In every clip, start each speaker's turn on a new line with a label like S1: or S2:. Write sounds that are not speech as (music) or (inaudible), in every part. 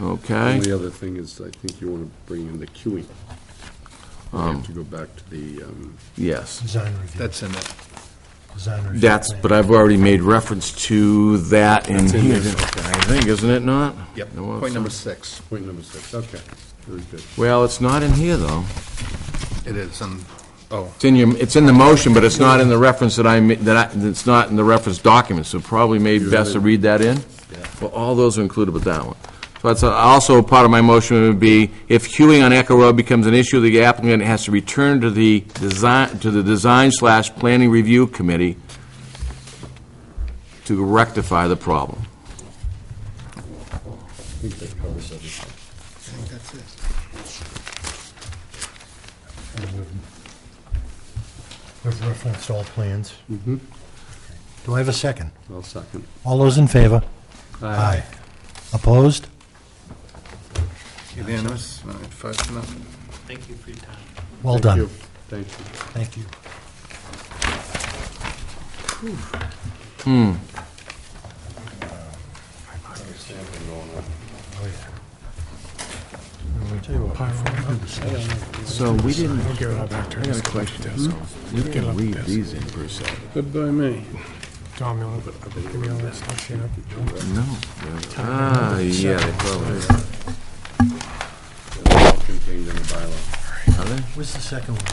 S1: okay?
S2: Only other thing is, I think you want to bring in the queuing. We have to go back to the, um,
S1: Yes,
S3: Design review,
S4: That's in it.
S3: design review.
S1: that's,
S3: plan.
S1: but I've already made reference to that in
S2: in
S1: here,
S2: there.
S1: I think, isn't it not?
S4: Yep,
S1: There was
S4: point number
S1: some-
S4: six.
S2: point number six, okay, very good.
S1: Well, it's not in here, though.
S4: It is, and, oh,
S1: It's in your, it's in the motion, but it's not in the reference that I, ma- that I, it's not in the reference document, so probably maybe best to read that in? Well, all those are included with that one. So that's, uh, also part of my motion would be, if queuing on Echo Road becomes an issue, the applicant has to return to the design, to the design slash planning review committee to rectify the problem.
S2: I think that covers everything.
S4: I think that's it.
S3: We've referenced all plans. Do I have a second?
S2: I'll second.
S3: All those in favor? Aye. Opposed?
S4: Unanimous, all right, five to nothing.
S5: Thank you for your time.
S3: Well
S2: Thank you.
S3: done.
S2: Thank you.
S3: Thank you. Oh,
S1: So we didn't, I got a question. We didn't leave these in per se.
S2: Goodbye, me.
S6: Tom, you want to give me all that stuff, you know?
S1: No. Ah, yeah, they probably
S2: They're all contained in the bylaw.
S1: are. Are they?
S3: Where's the second one?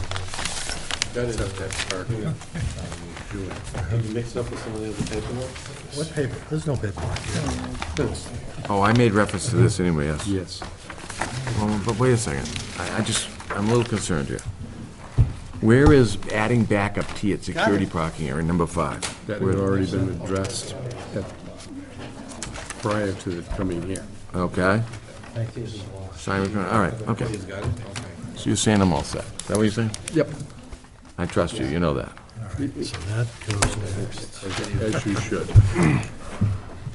S2: That is up there. You mixed up with some of the other paperwork?
S3: What paper? There's no paperwork here.
S1: Oh, I made reference to this anyway, yes.
S2: Yes.
S1: Well, But wait a second, I, I just, I'm a little concerned here. Where is adding backup T at security parking area, number five?
S2: That had already been addressed at- prior to it coming here.
S1: Okay? Sign requirement, all right, okay. So you're saying I'm all set, is that what you're saying?
S2: Yep.
S1: I trust you, you know that.
S3: So that goes next.
S2: As you should.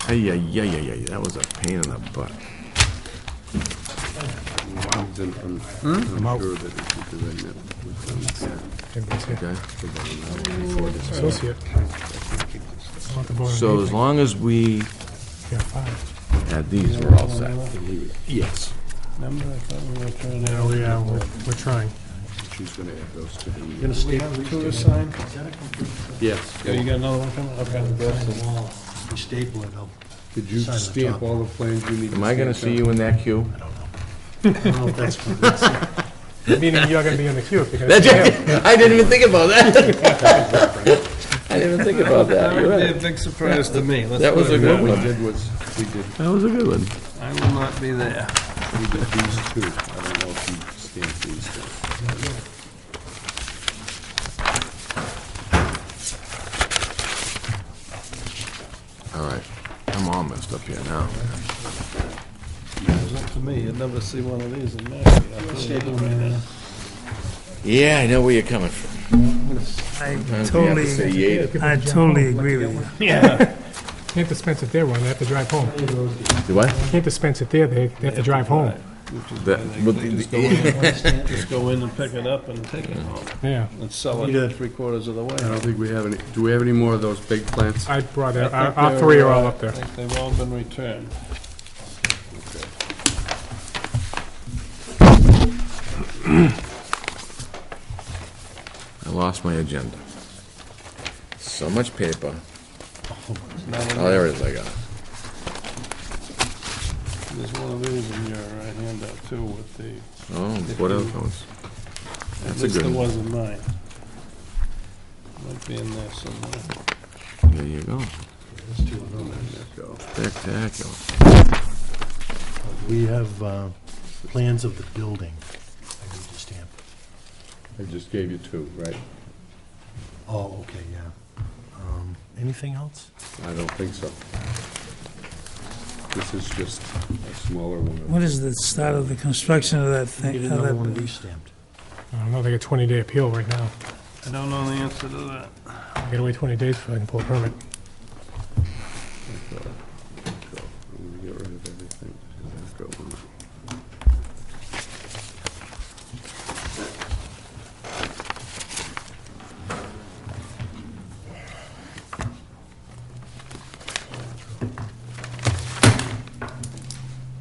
S1: Hey, yeah, yeah, yeah, yeah, that was a pain in the butt.
S2: Comes in from-
S3: Hmm?
S2: I'm sure that if you do that, it would um, come here.
S1: Okay.
S6: Associate. I want the board of
S1: So as
S6: Health.
S1: long as we
S6: Yeah, five.
S1: add these, we're all set.
S2: Yes.
S6: Yeah, we, uh, we're- we're trying.
S2: She's going to add those to the.
S6: Two to sign?
S2: Yes.
S6: got another one coming?
S3: We staple it up.
S2: Did you
S3: Sign the
S2: stamp
S3: top.
S2: all the plans you need?
S1: Am I gonna see you in that queue?
S3: I don't know if that's what (laughs)
S6: Meaning you're gonna be in the queue if you're gonna.
S1: I didn't even think about that. I didn't even think about that, you're right.
S4: Hmm?
S7: big surprise to me. Let's
S1: That was
S7: put it
S1: a good
S2: What
S1: one.
S2: we did was, we did,
S1: That was a good one.
S7: that- I will not be there.
S2: we did these two. I don't know if you stamped these two.
S1: All right, I'm all messed up here now.
S7: It's up to me. You'd never see one of these in Mashpee.
S1: Yeah, I know where you're coming from.
S8: I
S1: Sometimes we have to say
S8: totally,
S1: yay to
S8: I totally agree with you.
S6: (laughs) Can't dispense it there, one, they have to drive home.
S1: Do what?
S6: Can't dispense it there, they they have to drive home.
S1: That- but the-
S7: Just go in- just go in and pick it up and take it home
S6: Yeah.
S7: and sell it three quarters of the way.
S2: I don't think we have any, do we have any more of those big plants?
S6: I brought
S7: I
S6: it,
S7: think
S6: our, our
S7: they're,
S6: three are
S7: uh,
S6: all up there.
S7: I think they've all been returned.
S1: I lost my agenda. So much paper.
S7: Not
S1: Oh,
S7: enough.
S1: there it is, I got it.
S7: There's one of these in your uh, handout too with the,
S1: Oh, what else ones?
S7: at
S1: That's a
S7: least
S1: good
S7: it
S1: one.
S7: was in mine. Might be in there somewhere.
S1: There you go.
S2: Go.
S1: Spectacular.
S3: We have uh, plans of the building. I need to stamp.
S2: I just gave you two, right?
S3: Oh, okay, yeah. Um, Anything else?
S2: I don't think so. This is just a smaller one.
S8: What is the start of the construction of that
S3: Get
S8: thing? of
S3: another
S8: that
S3: one
S8: building?
S3: re-stamped.
S6: I don't know, they got twenty day appeal right now.
S7: I don't know the answer to that.
S6: I gotta wait twenty days before I can pull a permit.